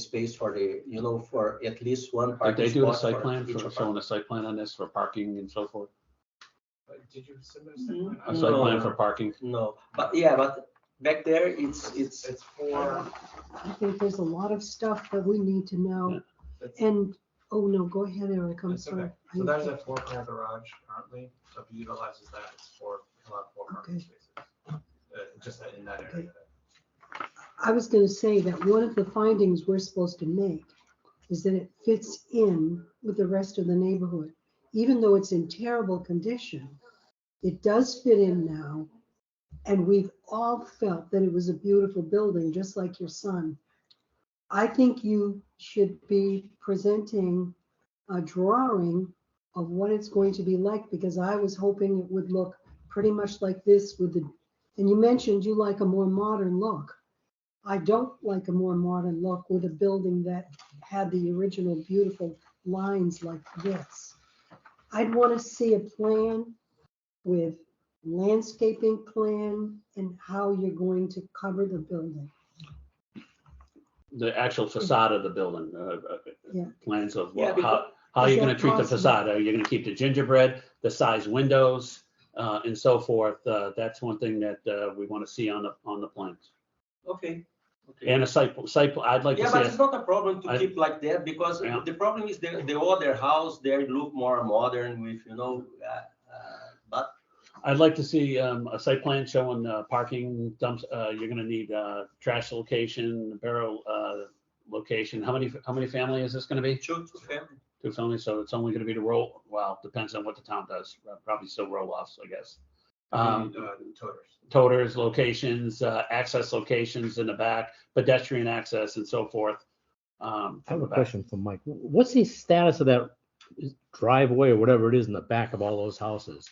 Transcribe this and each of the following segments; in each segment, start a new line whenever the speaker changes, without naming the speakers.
space for the, you know, for at least one
Did
parking
they do a
spot
site plan
for each
for, showing a site plan on this for parking and so forth?
But Did you submit a
Mm-hmm.
Mm,
site
A site
plan?
plan
No.
for parking?
No, but yeah, but back there, it's, it's,
It's for,
I think there's a lot of stuff that we need to know.
it's,
And, oh no, go ahead, Eric, I'm
That's okay.
sorry.
so there's a four car garage currently, so if you utilizes that, it's for, allow four parking
Okay.
spaces. Uh, just in that area.
I was gonna say that one of the findings we're supposed to make is that it fits in with the rest of the neighborhood. Even though it's in terrible condition, it does fit in now. And we've all felt that it was a beautiful building, just like your son. I think you should be presenting a drawing of what it's going to be like, because I was hoping it would look pretty much like this with the, and you mentioned you like a more modern look. I don't like a more modern look with a building that had the original beautiful lines like this. I'd want to see a plan with landscaping plan and how you're going to cover the building.
The actual facade of the building, uh, uh,
Yeah.
plans of
Yeah,
what- how, how
Is
you're
that
gonna treat the
possible?
facade. Are you gonna keep the gingerbread, the size windows, uh, and so forth? Uh, that's one thing that, uh, we wanna see on the, on the plans.
okay. okay.
And a site, site, pl- I'd like to
Yeah,
see,
but
a-
it's not a problem to
I-
keep like that because
Yeah.
the problem is the, the other house, they look more modern with, you know, uh, uh, but
I'd like to see, um, a site plan showing, uh, parking dumps, uh, you're gonna need, uh, trash location, barrel, uh, location. How many, how many family is this gonna be?
two, two family.
two families, so it's only gonna be the roll, well, depends on what the town does, probably still roll offs, I guess.
Uh-huh.
Um,
Uh, Toters.
toters, locations, uh, access locations in the back, pedestrian access and so forth. Um,
I
from
have a
the back.
question for Mike. What's the status of that driveway or whatever it is in the back of all those houses?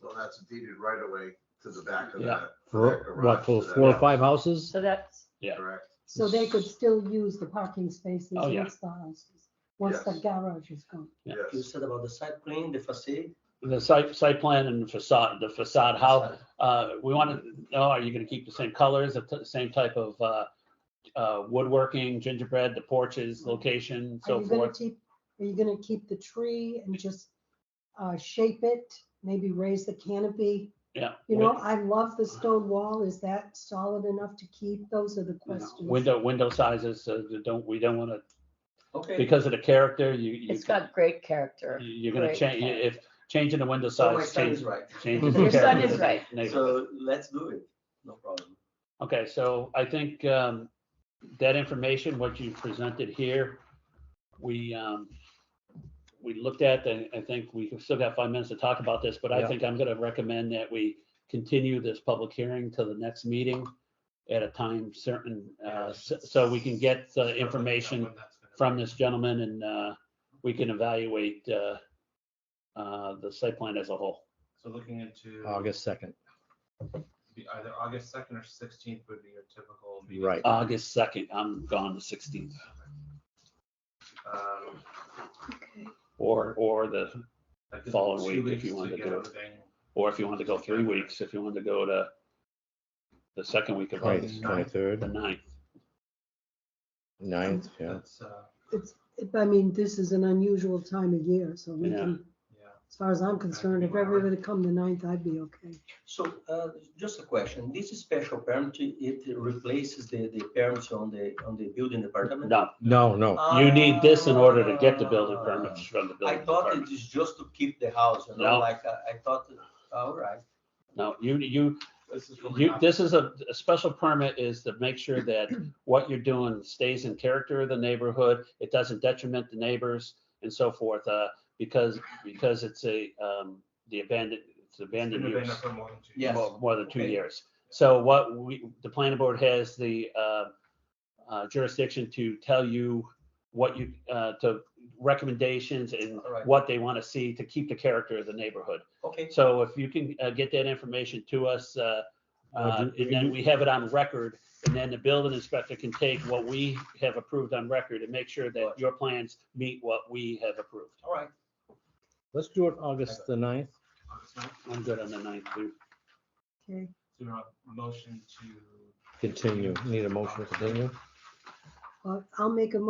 Well, that's deeded right away to the back of
Yeah.
that.
For what, for four or five houses?
So that's,
Yeah.
Correct.
So they could still use the parking spaces
Oh, yeah.
once the house, is- once the
Yes.
garage is gone.
Yeah.
You
Yes.
said about the site plan, the facade.
The site, site plan and facade, the facade, how, uh, we wanna know, are you gonna keep the same colors, the t- same type of, uh, uh, woodworking, gingerbread, the porches,
Mm-hmm.
location,
Are
so
you gonna
forth?
keep, are you gonna keep the tree and just uh, shape it, maybe raise the canopy?
Yeah.
You know, I love the stone wall. Is that solid enough to keep? Those are the
win-
questions.
Window, window sizes, uh, don't, we don't wanna,
Okay.
because of the character, you. you
it's got great character.
You're gonna
Great
change,
character.
if, changing the window
So Oh, my
size,
son
change,
is right.
changes. the
Your son
character
is
of the
right.
neighborhood.
So let's do it. No problem.
Okay, so I think, um, that information, what you presented here, we, um, we looked at, and I think we've still got five minutes to talk about this, but I
Yeah.
think I'm gonna recommend that we continue this public hearing to the next meeting at a time certain, uh, so, so we can get the information from this gentleman and, uh, we can evaluate, uh, uh, the site plan as a whole.
So looking into.
August second,
be Either August second or sixteenth would be your typical. meeting.
right.
August second, I'm gone the sixteenth,
Um,
or, or the,
that gives
Following
two
week if you
weeks
wanted to
get
do it.
everything.
or if you wanted to go three weeks, if you wanted to go to the second week of
Right,
August, the
twenty-third,
ninth.
ninth, yeah.
That's, uh,
It's, I mean, this is an unusual time of year, so we
Yeah.
can,
yeah.
as far as I'm concerned, if everybody come the ninth, I'd be okay.
So, uh, just a question. This special permit, it replaces the, the permits on the, on the building department?
No,
No, no,
you need this in order to get the building permits from the
Ah, I
building
thought
department.
it is just to keep the house, you know,
No.
like, I I thought, all right.
No, you, you,
This is. what we
you,
got.
this is a, a special permit is to make sure that what you're doing stays in character of the neighborhood, it doesn't detriment the neighbors and so forth, uh, because, because it's a, um, the abandoned, it's
It's
abandoned
been
use.
abandoned for more than two
Yes.
years.
more- more than two
Okay.
years. So what we, the planning board has the uh, uh, jurisdiction to tell you what you, uh, to recommendations and
All right.
what they want to see to keep the character of the neighborhood.
Okay,
So if you can uh, get that information to us, uh,
Uh,
uh,
do-
and then we have it on record, and then the building inspector can take what we have approved on record and make sure that your plans meet what we have approved.
all right.
let's do it August the ninth.
August ninth.
I'm good on the ninth, too.
Okay,
So we want a motion to
Continue, need a motion to continue?
Well, I'll make a